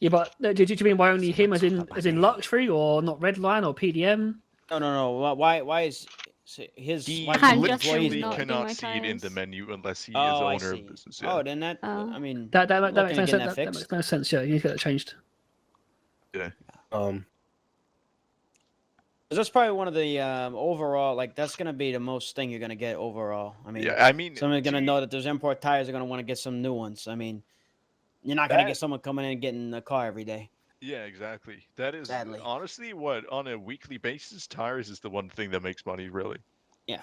Yeah, but uh, do, do you mean why only him, as in as in luxury, or not Redline or PDM? No, no, no. why- Why? Why is s- his? He why I'm his just employees literally really not not- doing cannot my see it in the times. menu unless he is Oh, I owner see. of business. Yeah. Oh, then that. Oh. I mean, That that, that, Looking makes at no getting sense. That, that that makes fixed. no sense. Yeah, you need to get that changed. Um, 'cause that's probably one of the um, overall. Like, that's gonna be the most thing you're gonna get overall. I mean, yeah, I mean, someone's gonna see, know that those import tires are gonna want to get some new ones. I mean, you're not gonna That- get someone coming in and getting a car every day. Yeah, exactly. That is Sadly. honestly what on a weekly basis tires is the one thing that makes money really. Yeah.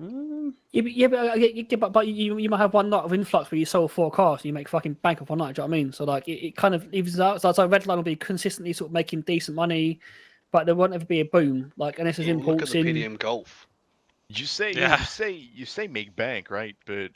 Mm-hmm. Mm, Yeah, but, yeah, but, uh, yeah, yeah, but, but you, you might have one night of influx where you sell four cars and you make fucking bank off one night. Do you know what I mean? So like it, it kind of evens out. So, so Redline will be consistently sort of making decent money, but there won't ever be a boom. Like unless there's Yeah, look at imports the in. PDM Golf. You say Yeah. you say you say make bank, right? But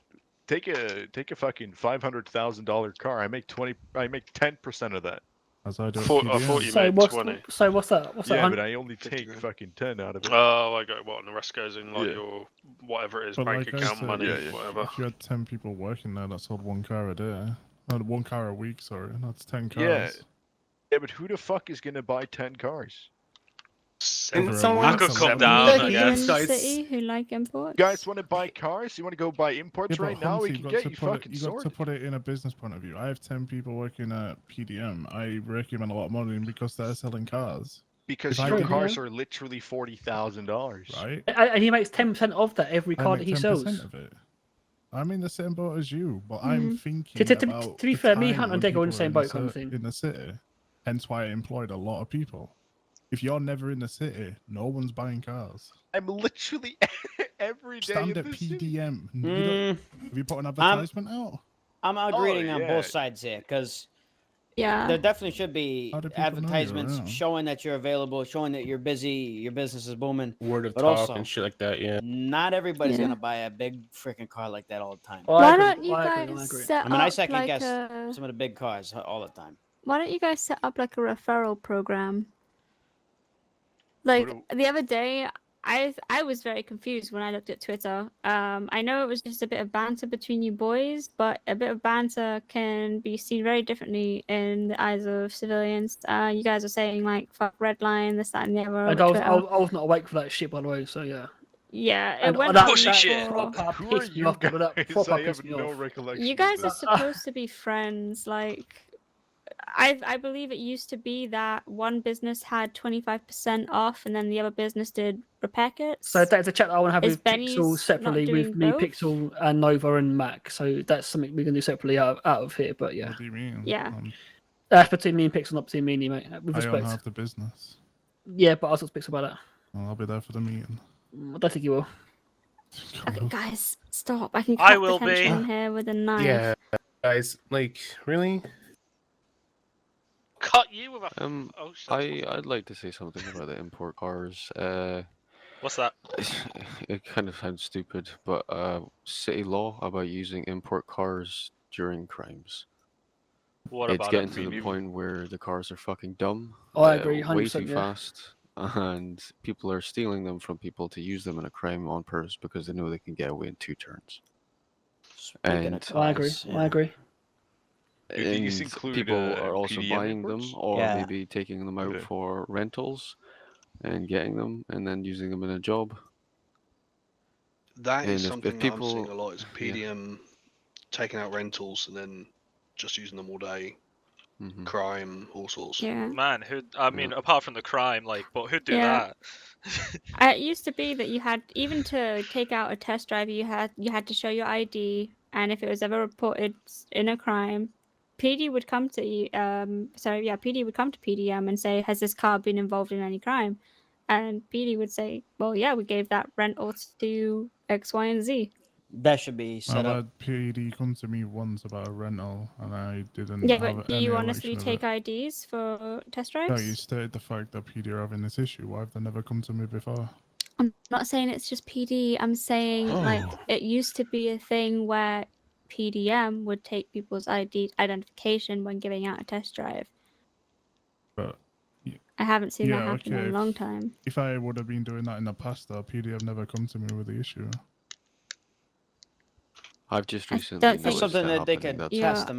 take a take a fucking five hundred thousand dollar car. I make twenty. I make ten percent of that. As I do. at Four- I PDM. thought you- So made what's 20. so what's that? What's yeah, that? but I only Fifty take grand. fucking ten out of it. Oh, I got what, and the rest goes in like Yeah. your whatever it is, But bank like I account, said, money, Yeah, yeah. whatever. If you had ten people working there, that sold one car a day. Uh, one car a week, sorry. That's ten cars. Yeah. Yeah, but who the fuck is gonna buy ten cars? Seven. someone- I could someone- come down, I Like guess. you in the city who like imports. You guys want to buy cars? You want to go buy imports but right now? Humpty, We you've can got get to you put it- fucking you got to sorted. put it in a business point of view. I have ten people working at PDM. I recommend a lot of money because they're selling cars, Because if I your did- cars are literally forty thousand dollars. right? uh, And- And he makes ten percent of that every I car that make he 10% sells. To, Of it. I'm in the same boat as you, but I'm thinking. to- to- to about be the fair, me, time Hunt, and when Dick are in the people same are boat kind of ci- thing. In the city, hence why I employed a lot of people. If you're never in the city, no one's buying cars. I'm literally every day. Stand in at this city. PDM. You don't- mm, have you Um, put an advertisement out? I'm agreeing on Oh, yeah. both sides here because Yeah. there definitely should be How do people know you're advertisements around? showing that you're available, showing that you're busy, your business is booming. word of But talk also- and shit like that. Yeah. Not everybody's Yeah. gonna buy a big freaking car like that all the Oh. time. Why don't you guys set I mean, I up second like guess a? Some of the big cars uh, all the time. Why don't you guys set up like a referral program? Like do- the other day, I I was very confused when I looked at Twitter. Um, I know it was just a bit of banter between you boys, but a bit of banter can be seen very differently in the eyes of civilians. Uh, you guys are saying like "fuck red line," this, that, and the other. and over I was, Twitter. I, was, I was not awake for that shit, by the way. So yeah. Yeah, it And went that- on Pussy that shit. for- proper Who are pissed me you off, guys? but that proper I have pissed me no off. recollection. You of guys are this. Uh, supposed to be friends. Like, I I believe it used to be that one business had twenty five percent off, and then the other business did repair kits. So that's a chat that I want to have Is with Pixel Benny's separately not with doing me, both? Pixel and Nova and Mac. So that's something we can do separately out of, out of here. But yeah, What do you mean? Yeah. Um, that's between me and Pixel, not between me and you, mate. With I own respect. half the business. Yeah, but I'll talk to Pixel about that. and I'll be there for the meeting. Mm, I don't think you will. okay, guys, stop! I can I cut the will be. tension here with a knife. Yeah, guys. Like, really? Cut you with a. Um, Oh, shit. I I'd like to say something about the import cars. Uh, What's that? it kind of sounds stupid, but uh, city law about using import cars during crimes. What it's about getting it? to the Maybe- point where the cars are fucking dumb. Oh, I agree, way too 100%, yeah. fast, and people are stealing them from people to use them in a crime on purpose because they know they can get away in two turns. Speaking And of I agree. cars, I yeah. agree. Do you think this And include, people uh, are also PDM buying imports? them or Yeah. maybe taking them out Okay. for rentals and getting them and then using them in a job. That is And if- if something that I'm seeing people- a lot. Is yeah. PDM um, taking out rentals and then just using them all day, hmm crime, all sorts. Yeah. Man, who? I mean, apart from the crime, like, but who'd do Yeah. that? I, Uh, it used to be that you had even to take out a test drive, you had you had to show your ID, and if it was ever reported s- in a crime, PD would come to you. Um, sorry, yeah, PD would come to PDM and say, "Has this car been involved in any crime?" And PD would say, "Well, yeah, we gave that rental to X, Y, and Z." That should be set I've up. had PAD come to me once about a rental, and Mm, I didn't. Yeah, have but do any you honestly recollection take of it. IDs for test No, drives? you stated the fact that PD are having this issue. Why have they never come to me before? I'm not saying it's just PD. I'm saying like Oh. it used to be a thing where PDM would take people's ID identification when giving out a test drive. But I haven't seen that Yeah, happen in okay. a long time. if I would have been doing that in the past, though, PD have never come to me with the issue. I've just I recently don't think- noticed Something that they happening, could that's all. Yeah. test them